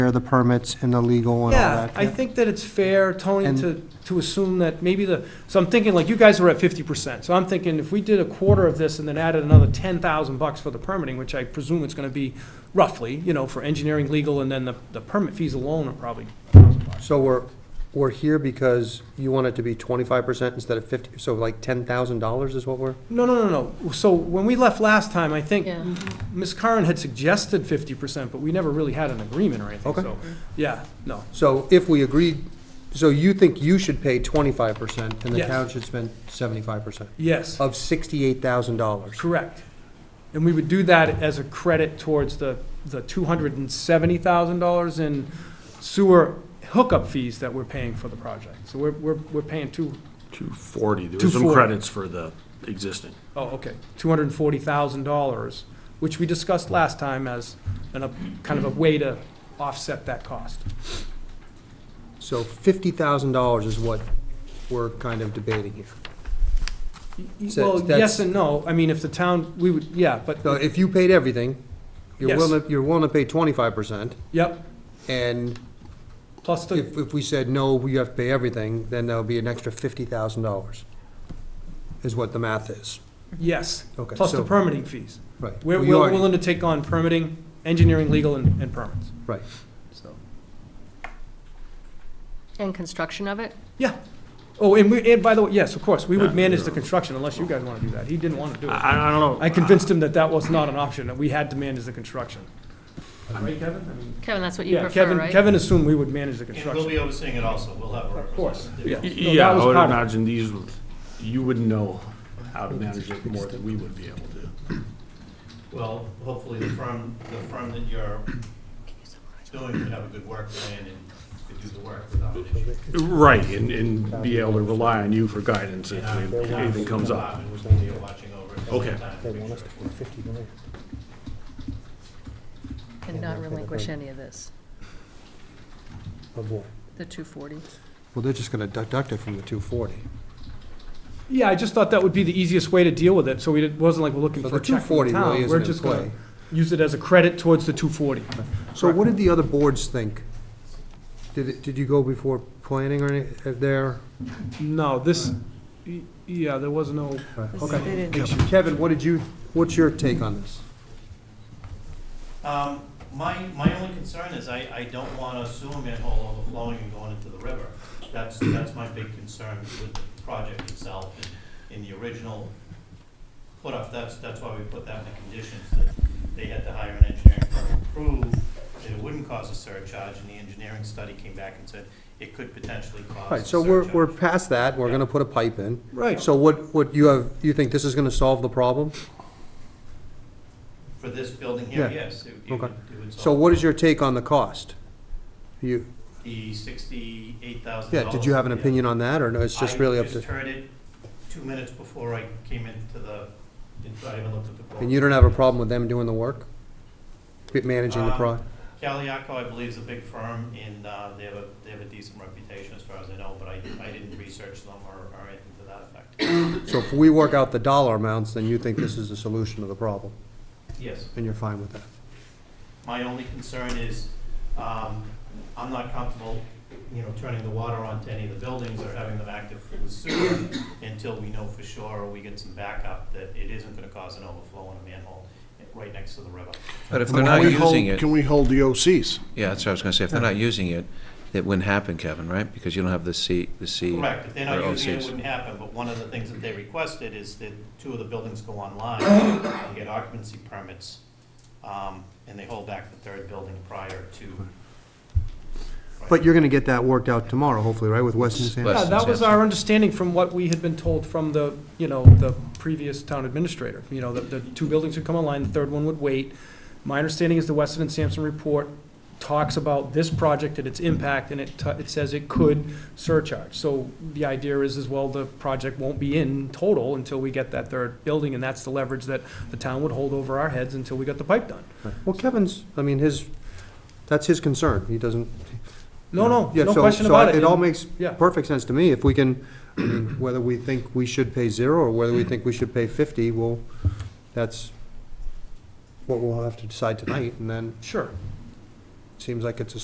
the permits and the legal and all Yeah, that. I think that it's fair, Tony, And- to, to assume that maybe the, so I'm thinking, like, you guys were at fifty percent, so I'm thinking if we did a quarter of this and then added another ten thousand bucks for the permitting, which I presume it's gonna be roughly, you know, for engineering, legal, and then the, the permit fees alone are probably So we're, we're here because you want it to be twenty-five percent instead of fifty, so like ten thousand dollars is what we're? No, no, no, no. So when we left last time, I think Yeah. Ms. Curran had suggested fifty percent, but we never really had an agreement or anything, Okay. so, yeah, no. So if we agreed, so you think you should pay twenty-five percent and the Yes. town should spend seventy-five percent Yes, of sixty-eight thousand dollars? correct. And we would do that as a credit towards the, the two hundred and seventy thousand dollars in sewer hookup fees that we're paying for the project. So we're, we're, we're paying two, 240, there was some 240. credits for the existing. oh, okay, two hundred and forty thousand dollars, which we discussed last time as an, a, kind of a way to offset that cost. So fifty thousand dollars is what we're kind of debating here. Y- So Well, that's- yes and no. I mean, if the town, we would, yeah, but, So if you paid everything, you're Yes. willing, you're willing to pay twenty-five percent, yep, and plus the, if, if we said, no, we have to pay everything, then that'll be an extra fifty thousand dollars, is what the math is. yes, Okay, plus the so- permitting fees. Right. We're Well, we're you already- willing to take on permitting, engineering, legal, and and permits, Right. so. And construction of it? Yeah. Oh, and we, and by the way, yes, of course, we would Yeah. manage the construction unless you guys want to do that. He didn't want to do it. I, I don't know. I convinced him that that was not an option, that we had to manage the construction. Right, Kevin? I mean, Kevin, that's what you Yeah, prefer, Kevin, right? Kevin assumed we would manage the And we'll construction. be overseeing it also, we'll have a Of course, representative. yeah. Y- No, that Yeah, was I would part of it. imagine these, you would know how to manage it more than we would be able to. Well, hopefully the firm, the firm that you're doing would have a good work plan and could do the work without an issue. Right, and, and be able to rely on you for guidance if And I'm- anything comes up. And we'll be watching over it. at the same Okay. time They to make want us sure to it pay fifty million. And not relinquish any of this, Of what? the 240. Well, they're just gonna deduct it from the two forty. Yeah, I just thought that would be the easiest way to deal with it, so we, didn't- wasn't like we're looking So for the a two check from forty the really town. We're isn't in just going play. to use it as a credit towards the 240. So what did the other boards think? Did, it- did you go before planning or any, uh, there? No, this, y- yeah, there was no, Okay. Kevin, what did you, what's your take on this? Um, My, my only concern is I, I don't want to assume a manhole overflowing and going into the river. That's, that's my big concern with the project itself and in the original put up, that's, that's why we put that in the conditions, that they had to hire an engineering firm to prove that it wouldn't cause a surcharge, and the engineering study came back and said it could potentially Oh, cause All a right, so we're, surcharge. we're past that, we're gonna put a pipe in. right. So what, what you have, you think this is gonna solve the problem? For this building here, Yeah. yes, it it Okay. would, it would So solve what is your take on the cost? You, the sixty-eight thousand yeah, dollars. did you have an opinion on that, or no, it's just really up I to, just heard it two minutes before I came into the, I even looked at the. and you don't have a problem with them doing the work? Managing the pro, Caliaco, I believe, is a big firm, and uh, they have a, they have a decent reputation as far as I know, but I, I didn't research them or, or anything to that effect. so if we work out the dollar amounts, then you think this is the solution to the problem, Yes, and you're fine with that? my only concern is, um, I'm not comfortable, you know, turning the water onto any of the buildings or having them active for the sewer until we know for sure, or we get some backup that it isn't gonna cause an overflow in a manhole right next to the river. But if Can they're not we using hold- it, Can we hold the OCs? yeah, that's what I was gonna say, if they're not using it, it wouldn't happen, Kevin, right? Because you don't have the C, the C. Correct, if they're or not using it, it OCs. wouldn't happen, but one of the things that they requested is that two of the buildings go online and get occupancy permits, um, and they hold back the third building prior to. But you're gonna get that worked out tomorrow, hopefully, right, with Weston and Sampson? Yeah, Less than that was Samson. our understanding from what we had been told from the, you know, the previous town administrator. You know, that the two buildings would come online, the third one would wait. My understanding is the Weston and Sampson report talks about this project and its impact, and it, t- it says it could surcharge. So the idea is as well, the project won't be in total until we get that third building, and that's the leverage that the town would hold over our heads until we got the pipe done. Well, Kevin's, I mean, his, that's his concern, he doesn't. No, no, Yeah, no so- question so about it. It all And- makes Yeah. perfect sense to me, if we can, I mean, whether we think we should pay zero, or whether we think we should pay fifty, well, that's what we'll have to decide tonight, and then Sure. it seems like it's a